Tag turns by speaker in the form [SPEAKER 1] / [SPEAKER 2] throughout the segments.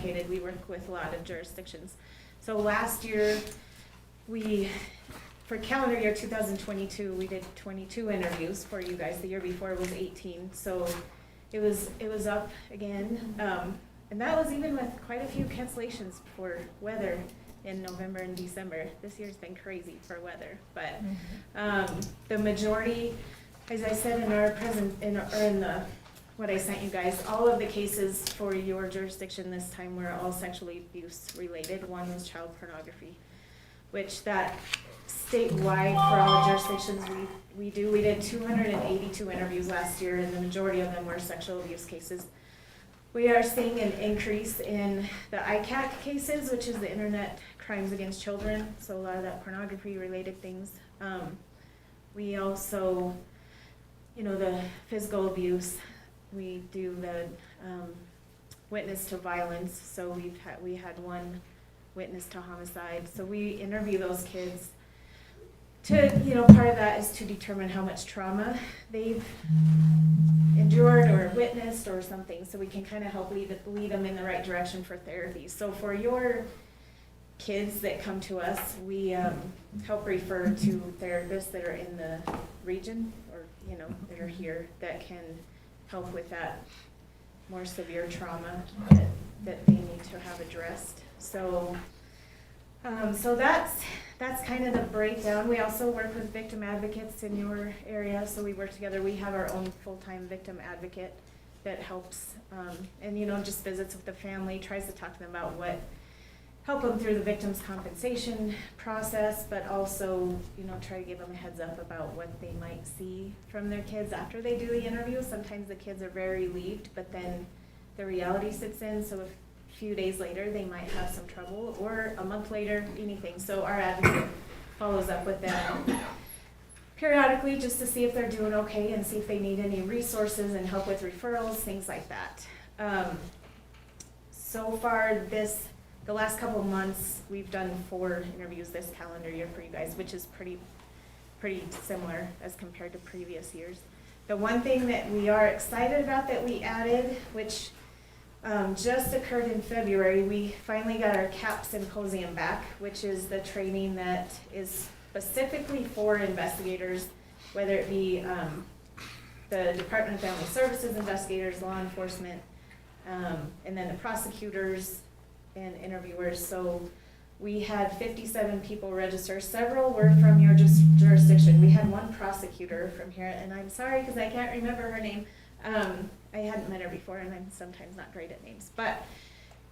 [SPEAKER 1] complicated. We work with a lot of jurisdictions. So last year, we, for calendar year two thousand twenty-two, we did twenty-two interviews for you guys. The year before was eighteen, so it was, it was up again. Um, and that was even with quite a few cancellations for weather in November and December. This year's been crazy for weather, but, um, the majority, as I said in our present, in, or in the, what I sent you guys, all of the cases for your jurisdiction this time were all sexually abuse related. One was child pornography, which that statewide for all jurisdictions we, we do, we did two hundred and eighty-two interviews last year and the majority of them were sexual abuse cases. We are seeing an increase in the ICAC cases, which is the Internet Crimes Against Children, so a lot of that pornography related things. Um, we also, you know, the physical abuse, we do the, um, witness to violence, so we've had, we had one witness to homicide, so we interview those kids to, you know, part of that is to determine how much trauma they've endured or witnessed or something, so we can kind of help lead, lead them in the right direction for therapy. So for your kids that come to us, we, um, help refer to therapists that are in the region or, you know, that are here that can help with that more severe trauma that, that they need to have addressed. So, um, so that's, that's kind of the breakdown. We also work with victim advocates in your area, so we work together. We have our own full-time victim advocate that helps, um, and you know, just visits with the family, tries to talk to them about what, help them through the victim's compensation process, but also, you know, try to give them a heads up about what they might see from their kids after they do the interview. Sometimes the kids are very relieved, but then the reality sits in, so a few days later, they might have some trouble, or a month later, anything. So our advocate follows up with them periodically just to see if they're doing okay and see if they need any resources and help with referrals, things like that. Um, so far, this, the last couple of months, we've done four interviews this calendar year for you guys, which is pretty, pretty similar as compared to previous years. The one thing that we are excited about that we added, which um, just occurred in February, we finally got our CAP symposium back, which is the training that is specifically for investigators, whether it be um, the Department of Family Services investigators, law enforcement, um, and then the prosecutors and interviewers. So we had fifty-seven people register. Several were from your jus- jurisdiction. We had one prosecutor from here, and I'm sorry because I can't remember her name. Um, I hadn't met her before, and I'm sometimes not great at names, but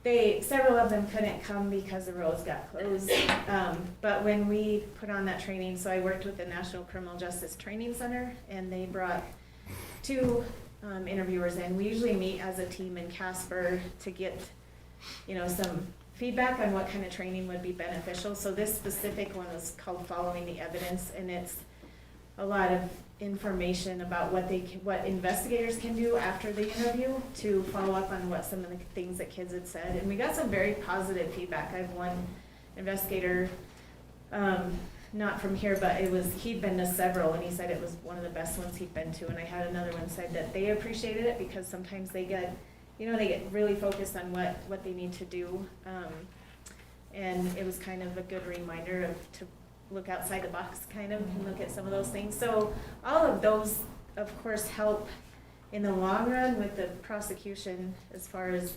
[SPEAKER 1] they, several of them couldn't come because the roads got closed. Um, but when we put on that training, so I worked with the National Criminal Justice Training Center, and they brought two um, interviewers in. We usually meet as a team in Casper to get, you know, some feedback on what kind of training would be beneficial. So this specific one was called Following the Evidence, and it's a lot of information about what they, can- what investigators can do after the interview to follow up on what some of the things that kids had said. And we got some very positive feedback. I have one investigator, um, not from here, but it was, he'd been to several, and he said it was one of the best ones he'd been to. And I had another one said that they appreciated it because sometimes they get, you know, they get really focused on what, what they need to do. Um, and it was kind of a good reminder of, to look outside the box kind of and look at some of those things. So all of those, of course, help in the long run with the prosecution as far as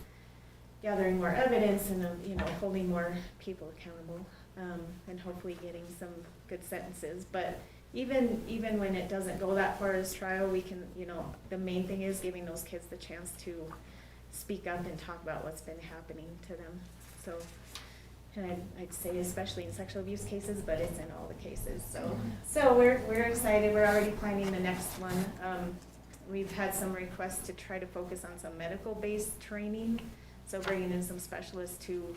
[SPEAKER 1] gathering more evidence and, um, you know, holding more people accountable, um, and hopefully getting some good sentences. But even, even when it doesn't go that far as trial, we can, you know, the main thing is giving those kids the chance to speak up and talk about what's been happening to them. So, and I'd, I'd say especially in sexual abuse cases, but it's in all the cases, so. So we're, we're excited, we're already planning the next one. Um, we've had some requests to try to focus on some medical-based training, so bringing in some specialists to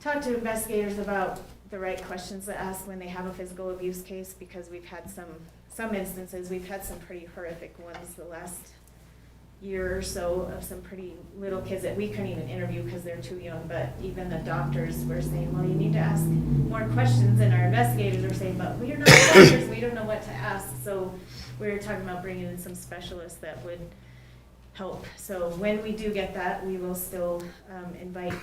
[SPEAKER 1] talk to investigators about the right questions to ask when they have a physical abuse case, because we've had some, some instances, we've had some pretty horrific ones the last year or so of some pretty little kids that we couldn't even interview because they're too young, but even the doctors were saying, well, you need to ask more questions, and our investigators were saying, but we're not doctors, we don't know what to ask, so we were talking about bringing in some specialists that would help. So when we do get that, we will still um, invite